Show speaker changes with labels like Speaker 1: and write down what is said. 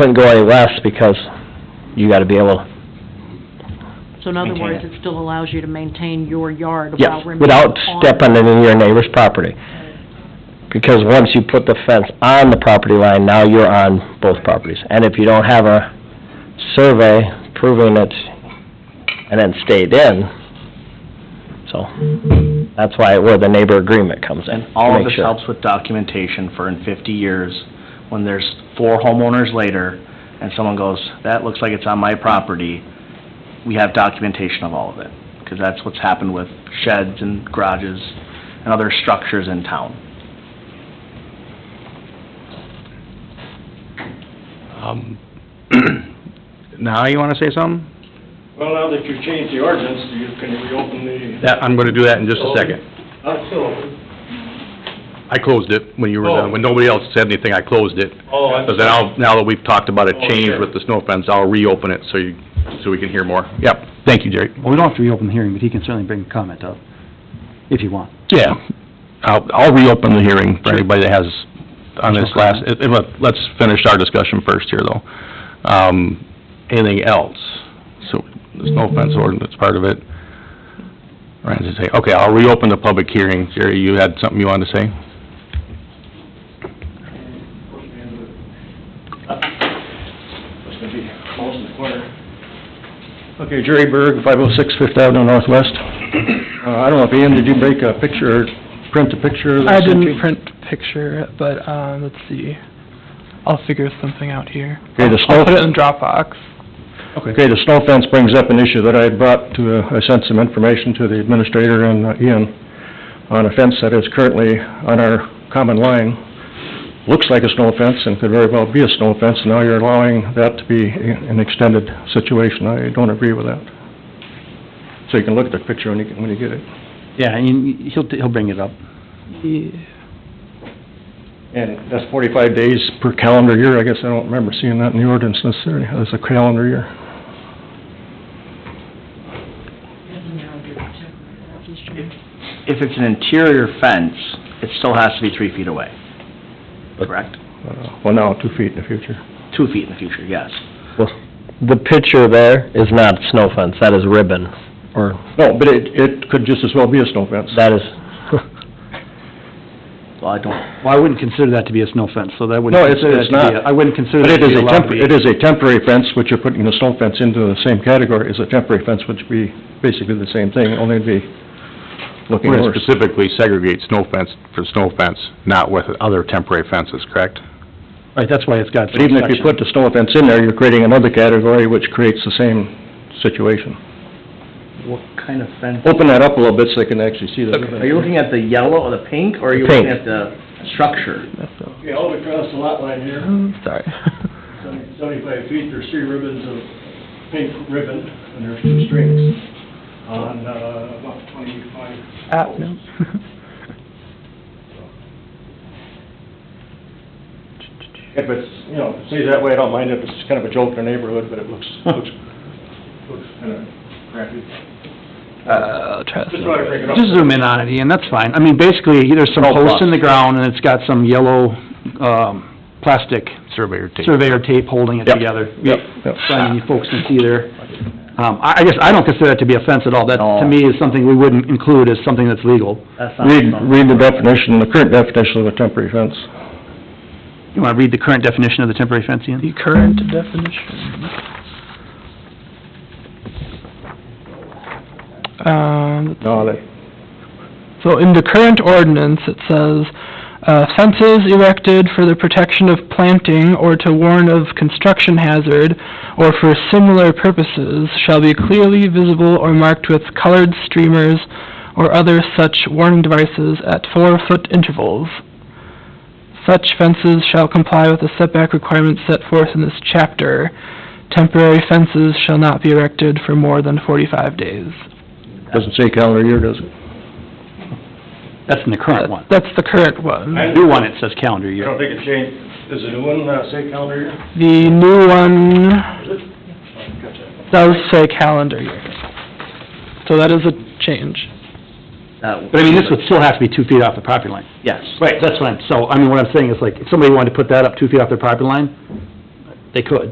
Speaker 1: Couldn't go any less because you gotta be able,
Speaker 2: So in other
Speaker 1: Maintain
Speaker 2: words,
Speaker 1: it.
Speaker 2: it still allows you to maintain your yard
Speaker 1: yes,
Speaker 2: while remaining
Speaker 1: without
Speaker 2: on-
Speaker 1: stepping into your neighbor's property. Because once you put the fence on the property line, now you're on both properties. And if you don't have a survey proving it and then stayed in, so, that's why, where the neighbor agreement comes in.
Speaker 3: And all
Speaker 1: Make
Speaker 3: of this
Speaker 1: sure.
Speaker 3: helps with documentation for in fifty years, when there's four homeowners later, and someone goes, that looks like it's on my property, we have documentation of all of it, because that's what's happened with sheds and garages and other structures in town.
Speaker 4: Um, Now, you want to say something?
Speaker 5: Well, now that you've changed the ordinance, you can reopen the...
Speaker 4: That, I'm going to do that in just a second.
Speaker 5: Not still open.
Speaker 4: I closed it when you were done, when nobody else said anything, I closed it.
Speaker 5: Oh, I'm
Speaker 4: But then I'll, now that we've talked about a
Speaker 5: Oh,
Speaker 4: change
Speaker 5: okay.
Speaker 4: with the snow fence, I'll reopen it so you, so we can hear more. Yep, thank you, Jerry.
Speaker 6: Well, we don't have to reopen the hearing, but he can certainly bring a comment up, if you want.
Speaker 4: Yeah, I'll, I'll reopen the hearing for anybody that has, on this last, if- if- let's finish our discussion first here, though. Um, anything else? So, the snow fence ordinance part of it. Ryan's gonna say, okay, I'll reopen the public hearing. Jerry, you had something you wanted to say?
Speaker 5: It's gonna be close in the corner.
Speaker 7: Okay, Jerry Berg, 506 Fifth Avenue Northwest. Uh, I don't know if, Ian, did you make a picture, or print a picture? that
Speaker 8: I
Speaker 7: sent
Speaker 8: didn't
Speaker 7: you?
Speaker 8: print picture, but, um, let's see, I'll figure something out here.
Speaker 7: Okay, the
Speaker 8: I'll put it
Speaker 7: snow-
Speaker 8: in Dropbox.
Speaker 7: Okay, the snow fence brings up an issue that I had brought to, uh, I sent some information to the administrator and uh, Ian on a fence that is currently on our common line. Looks like a snow fence and could very well be a snow fence, and now you're allowing that to be a- an extended situation. I don't agree with that. So you can look at the picture when you, when you get it.
Speaker 6: Yeah, and he'll, he'll bring it up.
Speaker 8: Yeah.
Speaker 7: And that's forty-five days per calendar year, I guess, I don't remember seeing that in the ordinance necessarily, as a calendar year.
Speaker 3: If it's an interior fence, it still has to be three feet away, correct?
Speaker 7: Uh, Well, now, two feet in the future.
Speaker 3: Two feet in the future, yes.
Speaker 1: The picture there is not snow fence, that is ribbon, or,
Speaker 7: No, but it, it could just as well be a snow fence.
Speaker 1: that is,
Speaker 3: Well, I don't,
Speaker 6: Well, I wouldn't consider that to be a snow fence, so that wouldn't...
Speaker 7: No, it's, uh,
Speaker 6: consider
Speaker 7: it's
Speaker 6: that to be
Speaker 7: not.
Speaker 6: a- I wouldn't consider
Speaker 7: But
Speaker 6: that to
Speaker 7: it
Speaker 6: be
Speaker 7: is a
Speaker 6: allowed to be...
Speaker 7: temporary, it is a temporary fence, which you're putting the snow fence into the same category as a temporary fence, which would be basically the same thing, only it'd be looking
Speaker 4: We're gonna
Speaker 7: worse.
Speaker 4: specifically segregate snow fence for snow fence, not with other temporary fences, correct?
Speaker 6: Right, that's why it's got...
Speaker 7: But even if you put the snow fence in there, you're creating another category which creates the same situation.
Speaker 3: what kind of fence?
Speaker 7: Open that up a little bit so they can actually see the...
Speaker 3: Are you looking at the yellow or the pink, or are you
Speaker 1: The
Speaker 3: looking
Speaker 1: pink.
Speaker 3: at the structure?
Speaker 5: Okay, all across the lot line here,
Speaker 1: sorry.
Speaker 5: seventy- seventy-five feet, there's three ribbons of pink ribbon, and there's two strings on, uh, about twenty-five.
Speaker 8: Ah, no.
Speaker 7: If it's, you know, see that way, I don't mind if it's kind of a joke in the neighborhood, but it looks, looks, looks kind of crappy.
Speaker 6: Uh, try
Speaker 5: Just wanted to bring it up.
Speaker 6: Just zoom in on it, Ian, that's fine. I mean, basically, there's some
Speaker 7: Oh, plus.
Speaker 6: posts in the ground, and it's got some yellow, um, plastic
Speaker 4: Surveyor tape.
Speaker 6: surveyor tape holding it
Speaker 7: Yep.
Speaker 6: together.
Speaker 7: Yep, yep.
Speaker 6: So, I mean, you folks can see there. Um, I, I guess, I don't consider that to be a fence at all. That, to
Speaker 3: No.
Speaker 6: me, is something we wouldn't include as something that's legal.
Speaker 3: That's not
Speaker 7: Read,
Speaker 3: something-
Speaker 7: read the definition, the current definition of a temporary fence.
Speaker 6: You wanna read the current definition of the temporary fence, Ian?
Speaker 8: The current definition. Um,
Speaker 7: No, that,
Speaker 8: So in the current ordinance, it says, uh, "Fences erected for the protection of planting or to warn of construction hazard or for similar purposes shall be clearly visible or marked with colored streamers or other such warning devices at four-foot intervals. Such fences shall comply with the setback requirements set forth in this chapter. Temporary fences shall not be erected for more than forty-five days."
Speaker 7: doesn't say calendar year, does it?
Speaker 6: That's in the current one.
Speaker 8: That's the current one.
Speaker 5: I
Speaker 6: The new one, it says calendar
Speaker 5: I
Speaker 6: year.
Speaker 5: don't think it changed, does the new one, uh, say calendar year?
Speaker 8: The new one
Speaker 5: Gotcha.
Speaker 8: does say calendar year. So that is a change.
Speaker 3: That-
Speaker 6: But I mean, this would still have to be two feet off the property line.
Speaker 3: Yes.
Speaker 6: Right, that's what I'm, so, I mean, what I'm saying is like, if somebody wanted to put that up two feet off their property line, They could.